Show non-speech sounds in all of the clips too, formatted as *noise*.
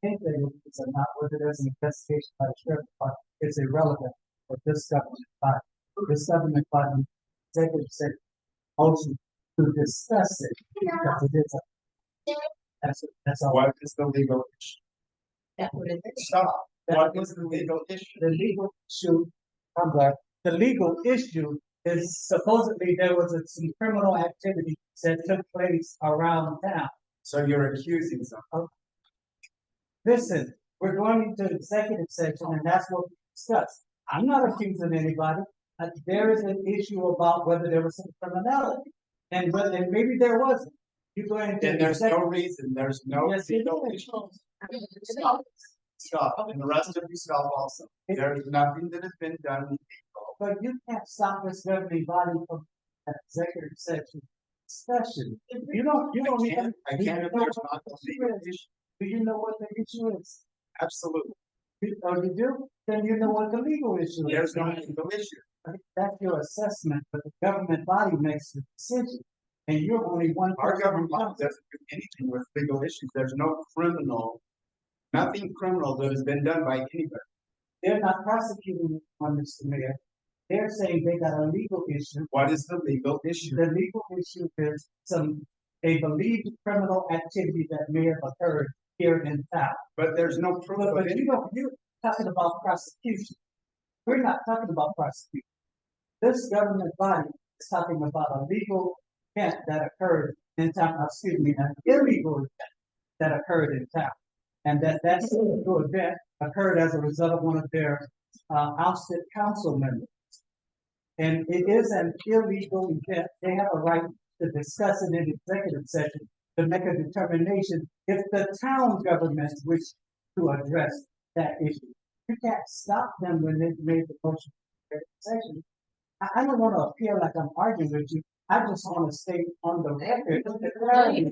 think they would use or not, whether there's an investigation by the sheriff department, it's irrelevant for this government body. This government body, executive session, motion to discuss it because it is a. That's, that's all. What is the legal issue? That would have Stop. That What is is the legal issue? the legal issue, I'm glad, the legal issue is supposedly there was a- some criminal activity that took place around town. So you're accusing someone. Listen, we're going into executive session and that's what we discussed. I'm not accusing anybody. Uh, there is an issue about whether there was some criminality and whether, and maybe there wasn't. You go into And there's no executive. reason, there's no Yes, it legal is. issue. Stop, and the rest of you stop also. There's nothing that has been done legal. But you can't stop this governing body from an executive session discussion. You don't, you don't I even. can't, I can't if there's not a legal issue, Do you know what the issue is? absolutely. You- Oh, you do? Then you know what the legal issue is. There's no legal issue. That's your assessment, but the government body makes the decision. And you're only one. Our person. government doesn't do anything with legal issues. There's no criminal, nothing criminal that has been done by anybody. They're not prosecuting on this, Mayor. They're saying they got a legal issue. What is the legal issue? The legal issue is some, they believe criminal activity that may have occurred here in town. But there's no proof But, of but it. you don't, you're talking about prosecution. We're not talking about prosecution. This government body is talking about a legal event that occurred in town, uh, excuse me, an illegal event that occurred in town. And that, that illegal event occurred as a result of one of their, uh, ousted council members. And it is an illegal event. They have a right to discuss it in executive session to make a determination if the town government, which to address that issue. You can't stop them when they made the motion for executive session. I, I don't wanna appear like I'm arguing with you, I just wanna stay on the record. uh, You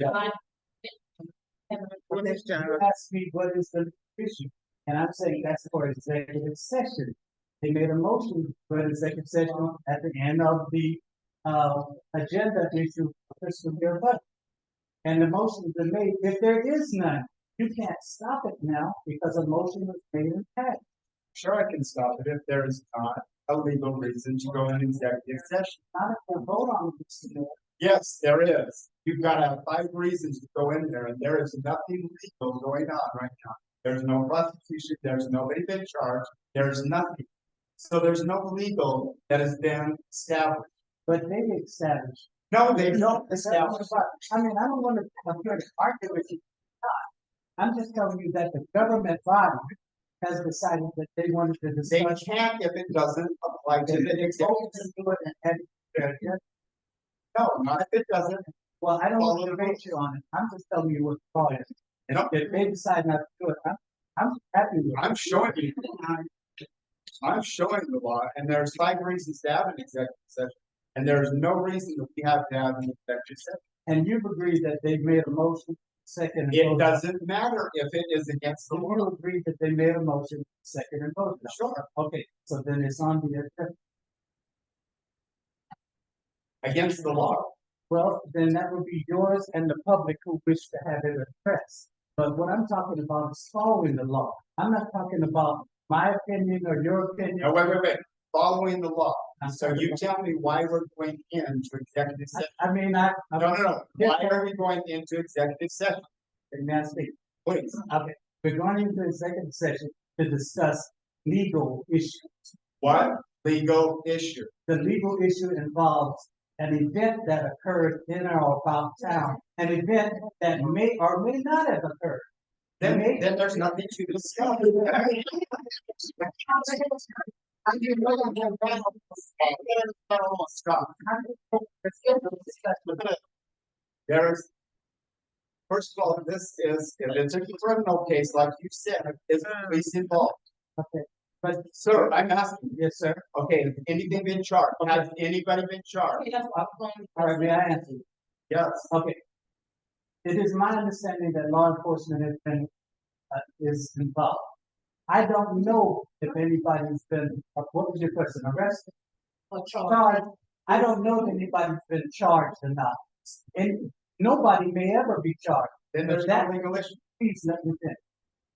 asked me what is the issue, and I'm saying that's for executive session. They made a motion for an executive session at the end of the, uh, agenda issue for fiscal year budget. And the motion's been made, if there is none, you can't stop it now because a motion was made and passed. Sure, I can stop it if there is not a legal reason to go in executive session. Not if they vote on it, Mr. Mayor. Yes, there is. You've got to have five reasons to go in there and there is nothing legal going on right now. There's no prosecution, there's nobody been charged, there's nothing. So there's no legal that has been established. But they established. No, they don't establish. Established. I mean, I don't want to, I'm here to argue with you. I'm just telling you that the government body has decided that they wanted to They discuss. can't if it doesn't apply to They- the they voted executive. to do it and had it there, yeah. No, not if it doesn't. Well, I don't want to Follow the debate you on it. I'm just telling you what the law is. And Nope. If they decide not to do it, I'm, I'm happy with it. I'm showing you. I'm showing the law, and there's five reasons to have an executive session, and there's no reason that we have to have an executive session. And you've agreed that they made a motion, second. and It voted. doesn't matter if it is against the So law. you agree that they made a motion, second and voted. on it. Sure, Okay, so then it's on the, agenda. against the law. well, then that would be yours and the public who wish to have it addressed. But what I'm talking about is following the law. I'm not talking about my opinion or your opinion. No, wait, wait, wait, following the law. I'm So talking you about- tell me why we're going into executive session. I I mean, I, No, I'm no, no. Why are we going into executive session? nasty. Please, Okay, we're going into executive session to discuss legal issues. what legal issue? The legal issue involves an event that occurred in or about town, an event that may or may not have occurred. Then, May- then there's nothing *laughs* to discuss. Stop. There's. First of all, this is, if it's a criminal case, like you said, is police involved? Okay, But sir, I'm asking, yes, sir. okay, has anything been charged? Has anybody been charged? All right, may I answer? Yes, Okay. It is my understanding that law enforcement has been, uh, is involved. I don't know if anybody's been, uh, what was your question, arrested, charged? I don't know if anybody's been charged or not. And nobody may ever be charged. then there's no legal issue. Please let me finish.